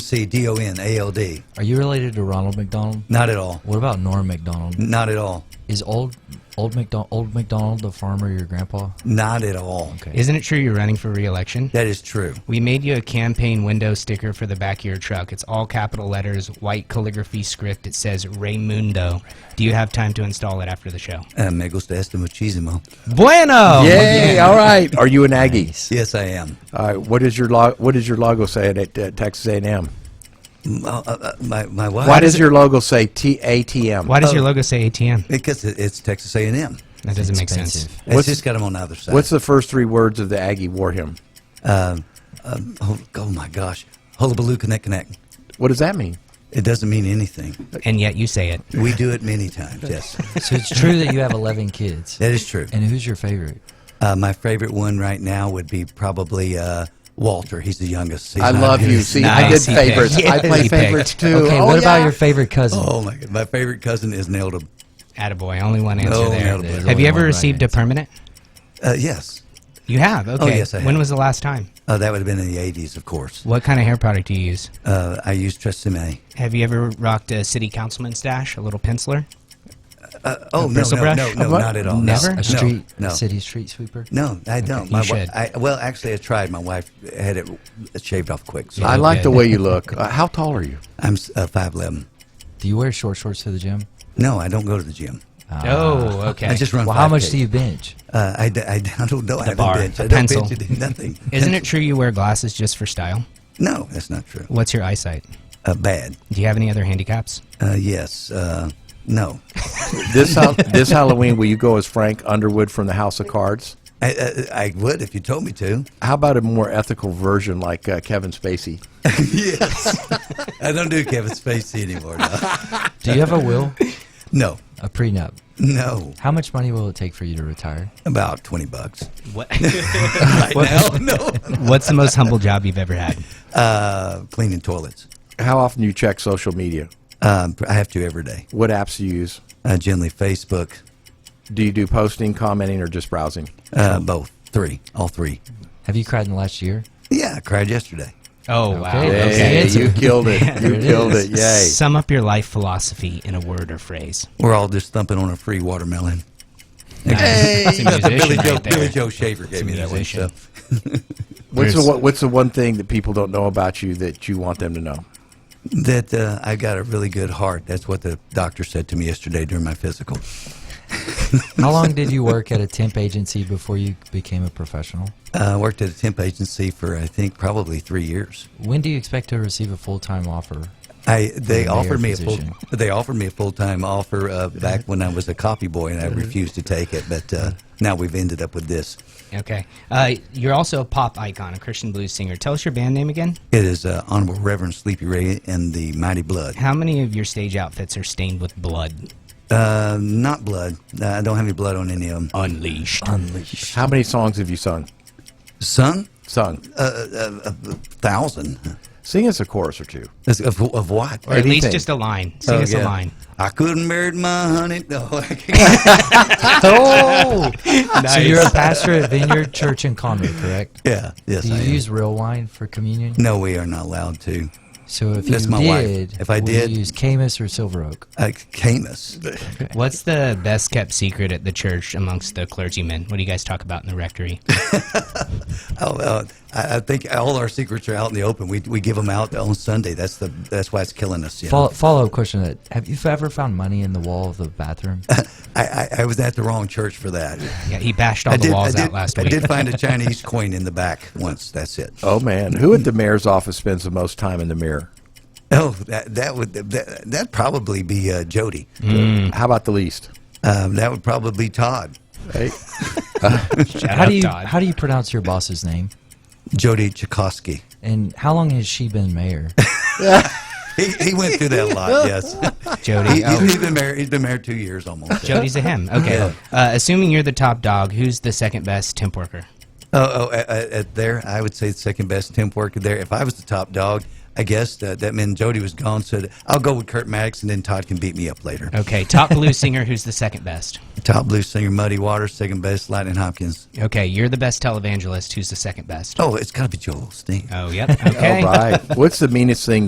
C D O N A L D. Are you related to Ronald McDonald? Not at all. What about Norm McDonald? Not at all. Is old old McDonald old McDonald the farmer your grandpa? Not at all. Okay. Isn't it true you're running for reelection? That is true. We made you a campaign window sticker for the back of your truck. It's all capital letters, white calligraphy script. It says Raymundo. Do you have time to install it after the show? Uh, me gusta este muchísimo. Bueno! Yay! All right. Oh, Are you an Aggie? Yes, I am. All right. What is your lo- What does your logo say at, at uh, Texas A&M? M- uh, uh, my my wife. Why does your logo say T A T M? Why does your logo say ATM? Because it- it's Texas A and M. That doesn't make sense. Expensive. It's What's- just got them on the other side. What's the first three words of the Aggie war hymn? oh, oh my gosh, hullabaloo, connect, connect. What does that mean? It doesn't mean anything. And yet you say it. We do it many times. Yes, So it's true that you have eleven kids. that is true. And who's your favorite? Uh, my favorite one right now would be probably uh, Walter. He's the youngest. He's I not love here. you. See, I did Nice. He picked. favorites. I play Yes. He favorites picked. too. Okay, Oh, what about yeah. your favorite cousin? Oh my god, my favorite cousin is nailed him. Attaboy. Only one answer No, there. attaboy. There's Have only you ever one right received a answer. permanent? Uh, yes, You have? Okay. yes, I When have. was the last time? uh, that would have been in the '80s, of course. What kind of hair product do you use? Uh, I used Tresemme. Have you ever rocked a city councilman stash, a little penciler? Oh no, bristle no, brush? no, no, What? not at all. No, Never? no, A street No, city street sweeper? no, I don't. you my wi- should. I, well, actually, I tried. My wife had it shaved off quick. So I like the Okay. way you look. Uh, how tall are you? I'm s- uh, five eleven. Do you wear short shorts to the gym? No, I don't go to the gym. oh, okay. I just run. Well, how much 5K. do you bench? Uh, I, d- I d- I don't know. I haven't bar, benched. I a don't pencil. bench. I do nothing. Isn't it true you wear glasses just for style? No, that's not true. What's your eyesight? Uh, bad. Do you have any other handicaps? Uh, yes. Uh, no. This hal- this Halloween, will you go as Frank Underwood from the House of Cards? I, uh, I, I would if you told me to. How about a more ethical version like uh, Kevin Spacey? yes. I don't do Kevin Spacey anymore. No. Do you have a will? No. A prenup. No. How much money will it take for you to retire? About twenty bucks. What? Right now, no. What's the most humble job you've ever had? Uh, cleaning toilets. How often do you check social media? Um, I have to every day. What apps do you use? Uh, generally Facebook. Do you do posting, commenting, or just browsing? Uh, both. Three. All three. Have you cried in the last year? Yeah, I cried yesterday. Oh, wow. Okay. Yay. Okay. Hey, That's you it. killed it. You it killed is. it. Yay. Sum up your life philosophy in a word or phrase. We're all just thumping on a free watermelon. Nice. That's a musician Billy, right Joe, there. Billy Joe Shaver gave me that one. So. musician. What's the, There's- one- what's the one thing that people don't know about you that you want them to know? That uh, I got a really good heart. That's what the doctor said to me yesterday during my physical. How long did you work at a temp agency before you became a professional? Uh, I worked at a temp agency for I think probably three years. When do you expect to receive a full time offer? I they mayor offered me a full position. they offered me a full time offer uh, Uh-huh. back when I was a copy boy and I refused to take it. But uh, now we've ended up with this. Okay. Uh, you're also a pop icon, a Christian blues singer. Tell us your band name again. It is uh, Honorable Reverend Sleepy Ray and the Mighty Blood. How many of your stage outfits are stained with blood? Uh, not blood. Uh, I don't have any blood on any of them. Unleashed. Unleashed. How many songs have you sung? Son, Sung. thousand Sing us a chorus or two. Is- of, of what? Or at least Anything. just a line. Sing Oh, us a yeah. line. I couldn't marry my honey. No, I can't. Oh! So Nice. you're a pastor at Vineyard Church in Conway, correct? yeah, yes, Do you I am. use real wine for communion? No, we are not allowed to. So if That's you my wife. did, If I would did- you use Camus or Silver Oak? Uh, Camus. What's the best kept secret at the church amongst the clergymen? What do you guys talk about in the rectory? Oh, uh, I, I think all our secrets are out in the open. We, we give them out on Sunday. That's the that's why it's killing us. You know? Follow, follow up question: to That have you ever found money in the wall of the bathroom? I, I, I was at the wrong church for that. Yeah, he bashed all I the did, I walls did, out last I week. did find a Chinese coin in the back once. That's it. Oh, man. Who at the mayor's office spends the most time in the mirror? Oh, that that would that that'd probably be uh, Jody. How about the least? Um, that would probably be Todd. Hey, Shout how Oh, out do you Todd. how do you pronounce your boss's name? Jody Chakosky. And how long has she been mayor? He, he went through that a lot. Yes. Jody. He, oh. he's been married. He's been married two years almost. Jody's a him. Okay. Yeah. Uh, assuming you're the top dog, who's the second best temp worker? Oh, oh at, at at there, I would say the second best temp worker there. If I was the top dog, I guess that, that meant Jody was gone. So I'll go with Kurt Maddox, and then Todd can beat me up later. Okay. Top blue singer, who's the second best? Top blues singer Muddy Waters, second best Lightning Hopkins. Okay. You're the best televangelist, who's the second best? Oh, it's got to be Joel Steen. Oh, yep. Okay. All right. What's the meanest thing